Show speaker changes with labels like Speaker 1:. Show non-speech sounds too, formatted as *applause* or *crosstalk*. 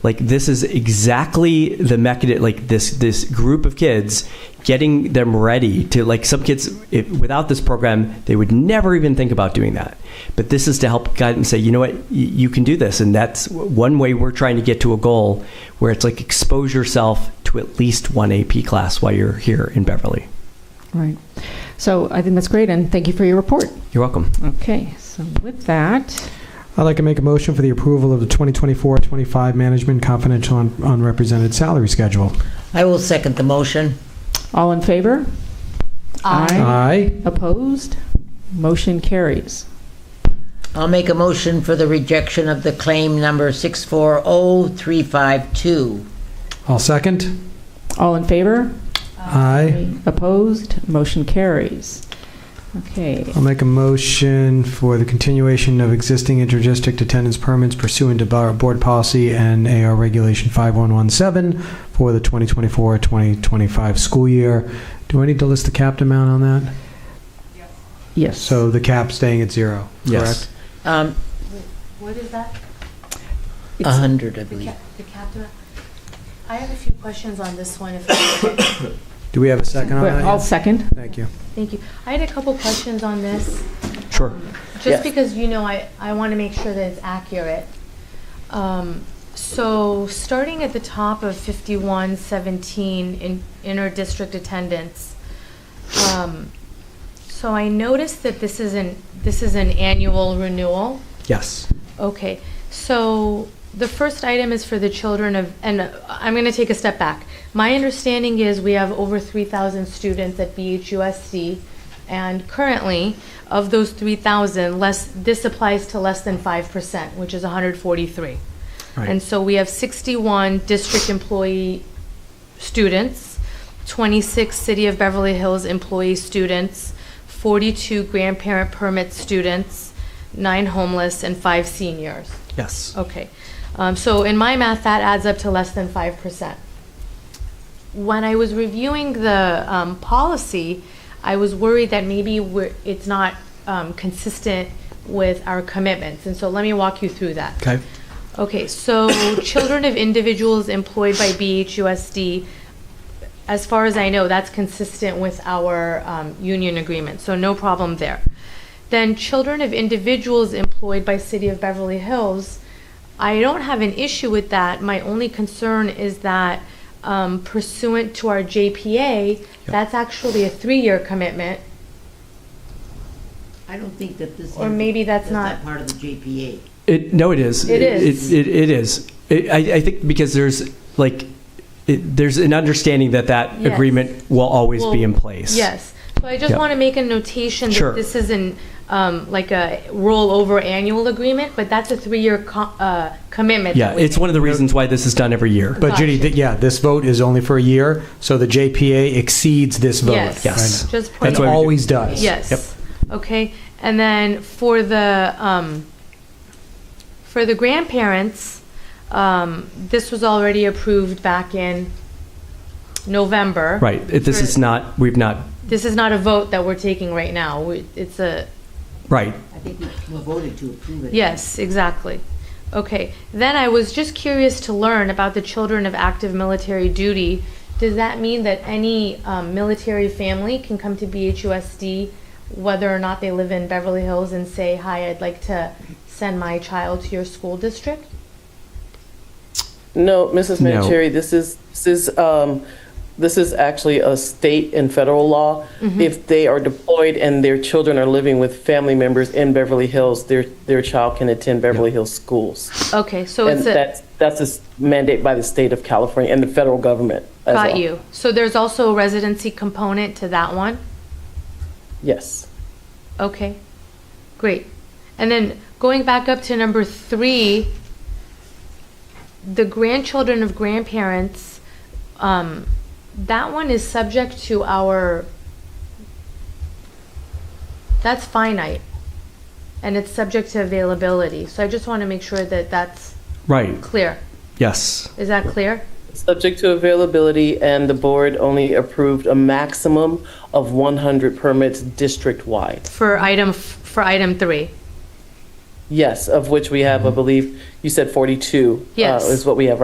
Speaker 1: like this is exactly the mechanism like this this group of kids getting them ready to like some kids if, without this program they would never even think about doing that but this is to help guide and say you know what y- you can do this and that's one way we're trying to get to a goal where it's like expose yourself to at least one ap class while you're here in beverly
Speaker 2: Right. So I think that's great, and thank you for your report.
Speaker 1: you're welcome
Speaker 2: Okay, so with that,
Speaker 3: I'd like to make a motion for the approval of the 2024-25 Management Confidential un- Unrepresented Salary Schedule.
Speaker 4: I will second the motion.
Speaker 2: all in favor?
Speaker 3: Aye.
Speaker 2: Opposed? Motion carries.
Speaker 4: I'll make a motion for the rejection of the claim number 640352.
Speaker 3: I'll second.
Speaker 2: All in favor?
Speaker 3: Aye.
Speaker 2: Opposed? Motion carries. Okay,
Speaker 3: I'll make a motion for the continuation of existing interdistrict attendance permits pursuant to bar- Board Policy and AR Regulation 5117 for the 2024-2025 school year. Do I need to list the capped amount on that?
Speaker 2: yes.
Speaker 3: So the cap staying at zero,
Speaker 1: Yes.
Speaker 3: correct?
Speaker 4: Um,
Speaker 5: What is that?
Speaker 4: a 100, I believe.
Speaker 5: The captain? I have a few questions on this one. if I may.
Speaker 3: Do we have a second on
Speaker 2: Well,
Speaker 3: that?
Speaker 2: I'll
Speaker 3: yet?
Speaker 2: second.
Speaker 3: Thank you.
Speaker 5: Thank you. I had a couple questions on this.
Speaker 1: sure
Speaker 5: um,
Speaker 4: Yes.
Speaker 5: Just because, you know, I, I want to make sure that it's accurate. Um, So, starting at the top of 5117 in inter-district attendance, um, so I noticed that this is an, this is an annual renewal.
Speaker 1: yes
Speaker 5: Okay, so the first item is for the children of, and I'm going to take a step back. My understanding is we have over 3,000 students at BHUSC, and currently, of those 3,000, less, this applies to less than 5%, which is 143.
Speaker 1: Right.
Speaker 5: And so we have 61 district employee students, 26 City of Beverly Hills employee students, 42 grandparent permit students, nine homeless, and five seniors.
Speaker 1: yes
Speaker 5: Okay. Um, So in my math, that adds up to less than 5%. When I was reviewing the um, policy, I was worried that maybe we're- it's not um, consistent with our commitments. And so let me walk you through that.
Speaker 1: okay
Speaker 5: Okay, so *coughs* children of individuals employed by BHUSD, as far as I know, that's consistent with our um, union agreement, so no problem there. Then children of individuals employed by City of Beverly Hills, I don't have an issue with that. My only concern is that um, pursuant to our JPA, that's actually a three-year commitment.
Speaker 4: I don't think that this.
Speaker 5: Or maybe that's not-
Speaker 4: part of the JPA.
Speaker 1: It no, it is.
Speaker 5: It is.
Speaker 1: It, it, it is. It, I, I think because there's like it, there's an understanding that that
Speaker 5: Yes.
Speaker 1: agreement will always be
Speaker 5: Well,
Speaker 1: in place.
Speaker 5: Yes. So I just
Speaker 1: Yeah.
Speaker 5: want to make a notation
Speaker 1: Sure.
Speaker 5: that this isn't um, like a rollover annual agreement, but that's a three-year co- uh, commitment.
Speaker 1: Yeah,
Speaker 5: that we
Speaker 1: it's one of the reasons why this is done every year.
Speaker 3: But Judy,
Speaker 5: Gotcha.
Speaker 3: th- yeah, this vote is only for a year, so the JPA exceeds this vote.
Speaker 5: Yes.
Speaker 1: Yes.
Speaker 5: Just
Speaker 3: It
Speaker 5: point.
Speaker 1: That's why we do-
Speaker 3: always does.
Speaker 1: Yep.
Speaker 5: Yes. Okay. And then for the, um, for the grandparents, um, this was already approved back in November.
Speaker 1: Right. It, this
Speaker 5: For-
Speaker 1: is not. We've not.
Speaker 5: This is not a vote that we're taking right now. We- It's a,
Speaker 1: Right.
Speaker 4: I think we voted to approve it.
Speaker 5: Yes, exactly. Okay, then I was just curious to learn about the children of active military duty. Does that mean that any um, military family can come to BHUSD, whether or not they live in Beverly Hills, and say, "Hi, I'd like to send my child to your school district"?
Speaker 6: No, Mrs.
Speaker 1: No.
Speaker 6: Manicherry, this is, this is, um, this is actually a state and federal law.
Speaker 5: Mm-hmm.
Speaker 6: If they are deployed and their children are living with family members in Beverly Hills, their, their child can attend Beverly Hills schools.
Speaker 5: Okay, so
Speaker 6: And
Speaker 5: it's a
Speaker 6: that's, that's a s- mandate by the state of California and the federal government as well.
Speaker 5: got you. So there's also a residency component to that one.
Speaker 6: Yes.
Speaker 5: Okay, great. And then going back up to number three, the grandchildren of grandparents, um, that one is subject to our, that's finite, and it's subject to availability. So I just want to make sure that that's
Speaker 1: Right.
Speaker 5: clear.
Speaker 1: Yes.
Speaker 5: Is that clear?
Speaker 6: Subject to availability and the board only approved a maximum of 100 permits district-wide.
Speaker 5: For item, f- for item three?
Speaker 6: Yes, of which we have, I believe, you said 42. uh,
Speaker 5: Yes.
Speaker 6: Is what we have